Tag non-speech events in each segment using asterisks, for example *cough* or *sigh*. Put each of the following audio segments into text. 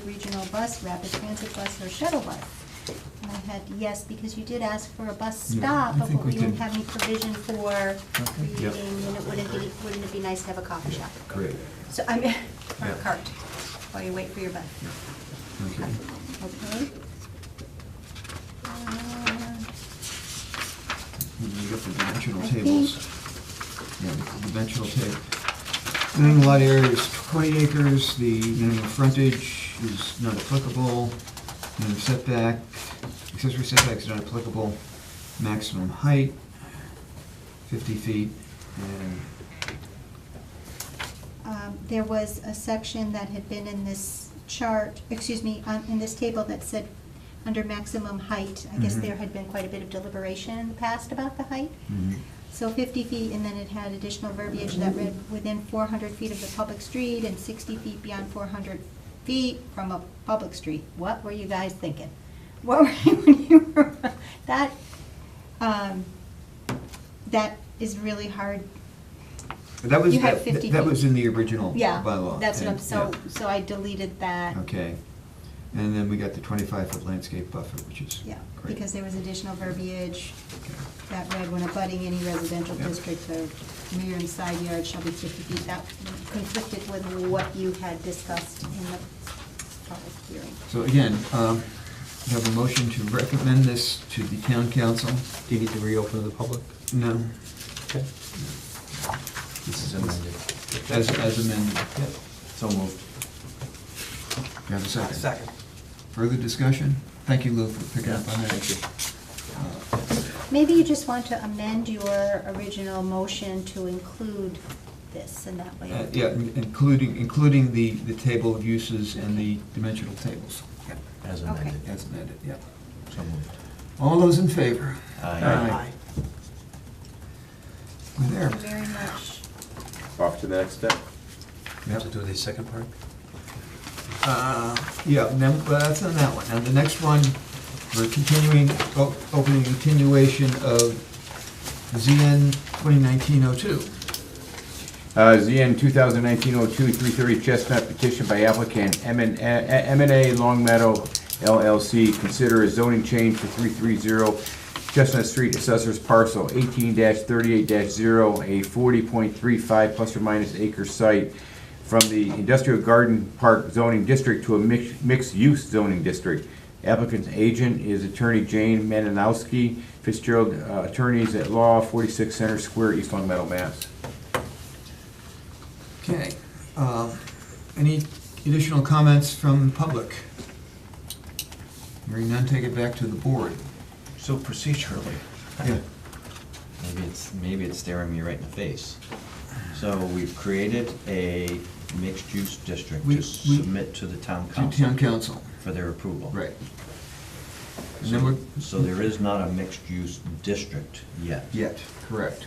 regional bus, rapid transit bus, or shuttle bus? And I had yes, because you did ask for a bus Yeah, stop, I but think we we didn't did. have any provision for Okay. reading, Yep. and it wouldn't be, wouldn't it be nice to have a coffee shop? Great. So I'm, or a Yeah. cart, while you wait for your bus. Okay. Okay? Uh, You got the I dimensional think- tables. Yeah, the dimensional table. Minimum lot area is 20 acres, the minimum frontage is not applicable, minimum setback, accessory setback is not applicable, maximum height, 50 feet, and, um, there was a section that had been in this chart, excuse me, on, in this table that said, under maximum height, I guess Mhm. there had been quite a bit of deliberation in the past about the height. mhm, So fifty feet, and then it had additional verbiage that read, within four hundred feet of the public street and sixty feet beyond four hundred feet from a public street. What were you guys thinking? What *laughs* were you, when you were, that, um, that is really hard but that was, You had that 50 that feet. was in the original bylaw. Yeah, that's what I'm, and- so, yeah. so I deleted that. Okay, and then we got the 25-foot landscape buffer, which is Yeah, great. because there was additional verbiage Okay. that read, when abutting any residential Yeah. district, the rear and side yard shall be fifty feet. That conflicted with what you had discussed in the public hearing. So again, um, we have a motion to recommend this to the town council? Do you need to reopen to the public? No, Okay. This is amended. as, as amended. Yep. So moved. Do you have a second? Further discussion? Thank you, Lou, for picking up on that. Thank you. Maybe you just want to amend your original motion to include this in that Uh, way. Yeah, in- including, including the, the table of uses and the dimensional tables. As Okay. amended. As amended, yeah. So moved. All those in favor? Aye. We're there. Thank you very much. Off to the next step. We have to do the second part? Uh, Yeah, no, well, that's on that one. Now, the next one, we're continuing, o- opening continuation of ZN 2019-02. Uh, ZN 2019-02, 330 Chestnut, petition by applicant m and A Long Meadow LLC, consider a zoning change for 330 Chestnut Street, assessors parcel 18-38-0, a 40.35 plus or minus acre site from the industrial garden park zoning district to a mix- mixed-use zoning district. Applicant's agent is attorney Jane Maninowski, Fitzgerald uh, Attorneys at Law, 46 Center Square, East Long Meadow, Mass. Okay. um, Any additional comments from the public? Hearing none, take it back to the board. So procedurally. Yeah. Maybe it's, maybe it's staring me right in the face. So we've created a mixed-use district We- to we- submit to the town To council town council. for their approval. Right. And then So we're, so there is not a mixed-use district yet. yet, correct.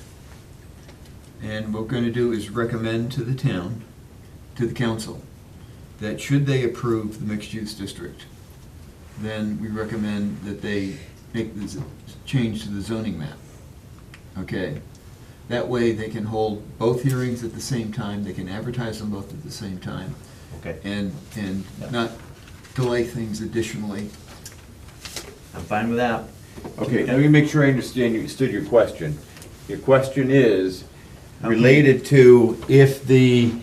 And what we're gonna do is recommend to the town, to the council, that should they approve the mixed-use district, then we recommend that they make this change to the zoning map. Okay? That way, they can hold both hearings at the same time, they can advertise them both at the same time, Okay, and, and Yeah. not delay things additionally. I'm fine with that. Okay, let me make sure I understand you, understood your question. Your question is related to if the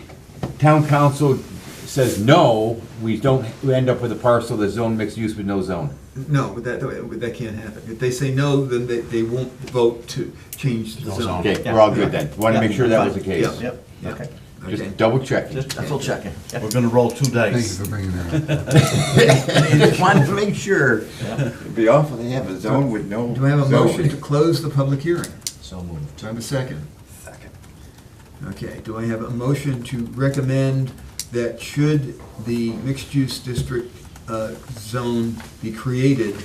town council says no, we don't, we end up with a parcel that's zoned mixed use with no zone. No, that, that can't happen. If they say no, then they, they won't vote to change the No zone. zone. Okay, we're all good then. Want to make sure that was the case. Yeah. Yep, Yeah. okay. Okay. Just double checking. Just double checking. We're gonna roll two Thank you dice. for bringing that up. Just wanted to make sure. It'd be awful to have a zone with no. Do I have a zoning. motion to close the public hearing? So moved. Do I have a second? Second. Okay, do I have a motion to recommend that should the mixed-use district uh, zone be created,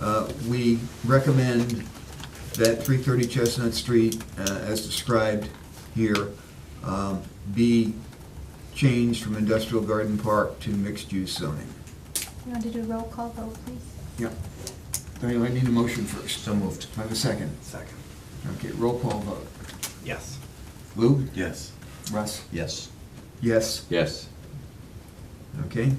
uh, we recommend that 330 Chestnut Street, uh, as described here, um, be changed from industrial garden park to mixed-use zoning? You want to do a roll call vote, please? Yeah. Do I I need a motion first? So moved. Do I have a second? Second. Okay, roll call vote. Yes. Lou? Yes. Russ? Yes. Yes. Yes. Okay,